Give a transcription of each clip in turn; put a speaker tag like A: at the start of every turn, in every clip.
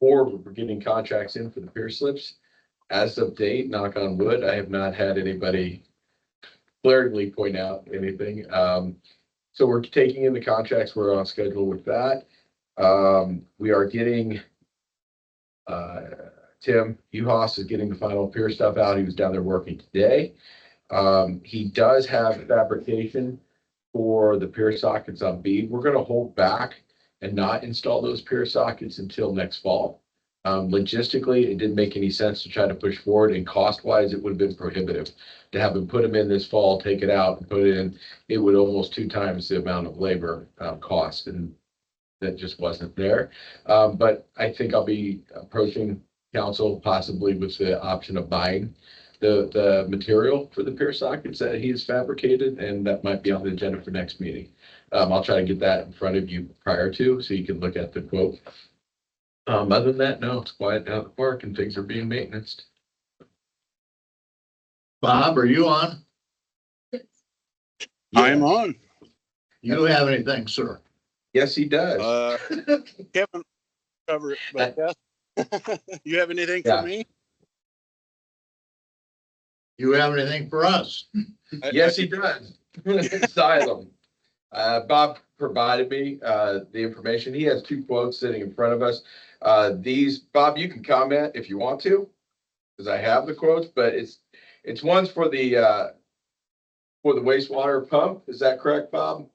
A: Or we're getting contracts in for the pier slips. As of date, knock on wood, I have not had anybody glaringly point out anything. Um, so we're taking in the contracts, we're on schedule with that. Um, we are getting uh, Tim Uhas is getting the final pier stuff out. He was down there working today. Um, he does have fabrication for the pier sockets on B. We're gonna hold back and not install those pier sockets until next fall. Um, logistically, it didn't make any sense to try to push forward and cost wise, it would have been prohibitive to have them put them in this fall, take it out and put it in. It would almost two times the amount of labor, uh, cost and that just wasn't there. Um, but I think I'll be approaching council possibly with the option of buying the, the material for the pier sockets that he has fabricated, and that might be on the agenda for next meeting. Um, I'll try to get that in front of you prior to, so you can look at the quote. Um, other than that, no, it's quiet down at the park and things are being maintained.
B: Bob, are you on?
C: I'm on.
B: You have anything, sir?
A: Yes, he does.
C: Uh, Kevin, cover it, but uh, you have anything
A: Yeah.
C: for me?
B: You have anything for us?
C: I- I
A: Yes, he
C: think-
A: does. Asylum. Uh, Bob provided me, uh, the information. He has two quotes sitting in front of us. Uh, these, Bob, you can comment if you want to. Cause I have the quotes, but it's, it's ones for the, uh, for the wastewater pump. Is that correct, Bob?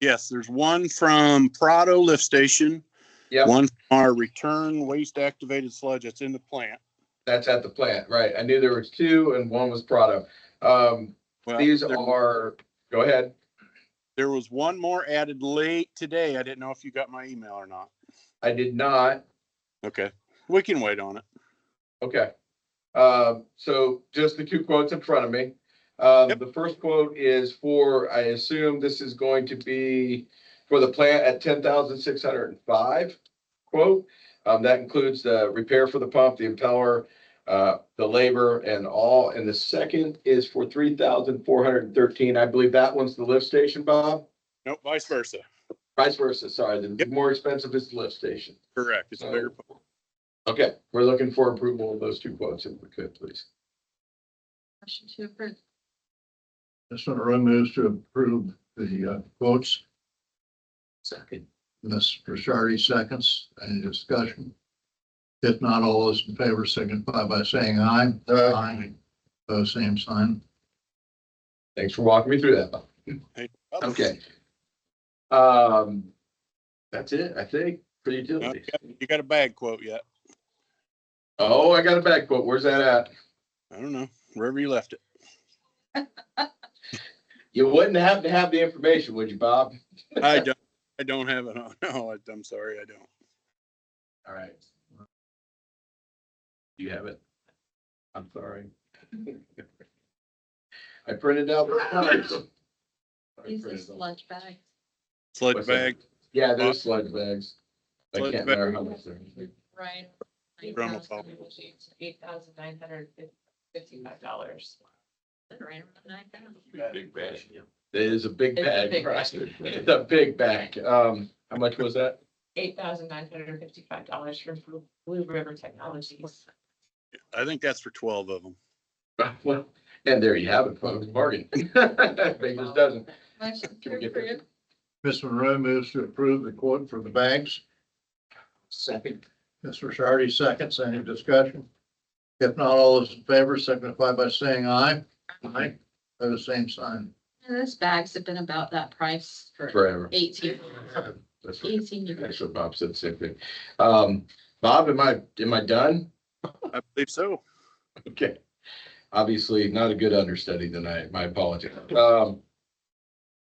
C: Yes, there's one from Prado Lift Station.
A: Yep.
C: One from our return waste activated sludge that's in the plant.
A: That's at the plant, right? I knew there was two and one was Prado. Um,
C: Well,
A: these
C: there-
A: are, go ahead.
C: There was one more added late today. I didn't know if you got my email or not.
A: I did not,
C: Okay, we can wait on it.
A: okay. Um, so just the two quotes in front of me. Um,
C: Yep.
A: the first quote is for, I assume this is going to be for the plant at ten thousand six hundred and five quote. Um, that includes the repair for the pump, the impeller, uh, the labor and all. And the second is for three thousand four hundred and thirteen. I believe that one's the lift station, Bob?
C: Nope, vice versa.
A: Vice versa, sorry, the
C: Yep.
A: more expensive is the lift station.
C: Correct. It's a
A: Oh,
C: bigger.
A: Okay, we're looking for approval of those two quotes if we could, please.
D: Motion to approve.
B: This one moves to approve the uh, quotes.
A: Second.
B: Ms. Prisardi seconds. Any discussion? If not, all those in favor signify by saying aye. Aye. Oh, same sign.
A: Thanks for walking me through that. Bob.
C: oh,
A: Okay. Um, that's it, I think, for utilities.
C: You got a bag quote yet?
A: Oh, I got a back quote. Where's that at?
C: I don't know, wherever you left it.
A: You wouldn't have to have the information, would you, Bob?
C: I don't, I don't have it on. No, I- I'm sorry, I don't.
A: All right. Do you have it? I'm sorry. I printed out. the cards. I printed
D: These are
A: them.
D: sludge bags.
C: Sludge
A: What's that?
C: bag
A: Yeah, there's sludge bags. I
C: Sludge
A: can't
C: bag.
A: remember how much they're.
D: Right.
C: Drum will fall.
D: Eight thousand nine hundred fifty-five dollars. Right around nine thousand.
A: Big bag. It is a big
D: It's a
A: bag,
D: big
A: right?
D: bag.
A: It's a big bag. Um, how much was that?
D: Eight thousand nine hundred fifty-five dollars from Blue- Blue River Technologies.
C: I think that's for twelve of them.
A: Well, and there you have it, folks, bargain. Baker's dozen.
D: Motion
A: Can we get that?
B: Ms. Monroe moves to approve the quote for the bags.
A: Second.
B: Ms. Prisardi seconds. Any discussion? If not, all those in favor signify by saying aye. Aye. Oh, same sign.
D: Those bags have been about that price for
A: Forever.
D: eighteen,
A: That's what,
D: eighteen years.
A: that's what Bob said, same thing. Um, Bob, am I, am I done?
C: I believe so.
A: Okay. Obviously, not a good understudy tonight, my apologies. Um,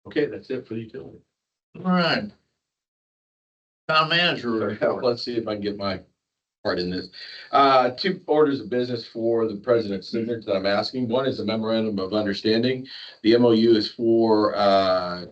A: okay, that's it for the utility.
B: All right. Town manager report.
A: Let's see if I can get my part in this. Uh, two orders of business for the president's signature that I'm asking. One is a memorandum of understanding. The MOU is for, uh,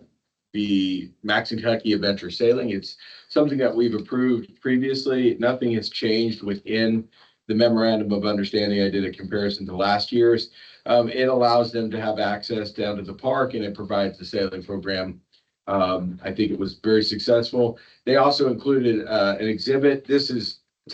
A: the Max and Kentucky Adventure Sailing. It's something that we've approved previously. Nothing has changed within the memorandum of understanding. I did a comparison to last year's. Um, it allows them to have access down to the park and it provides the sailing program. Um, I think it was very successful. They also included uh, an exhibit. This is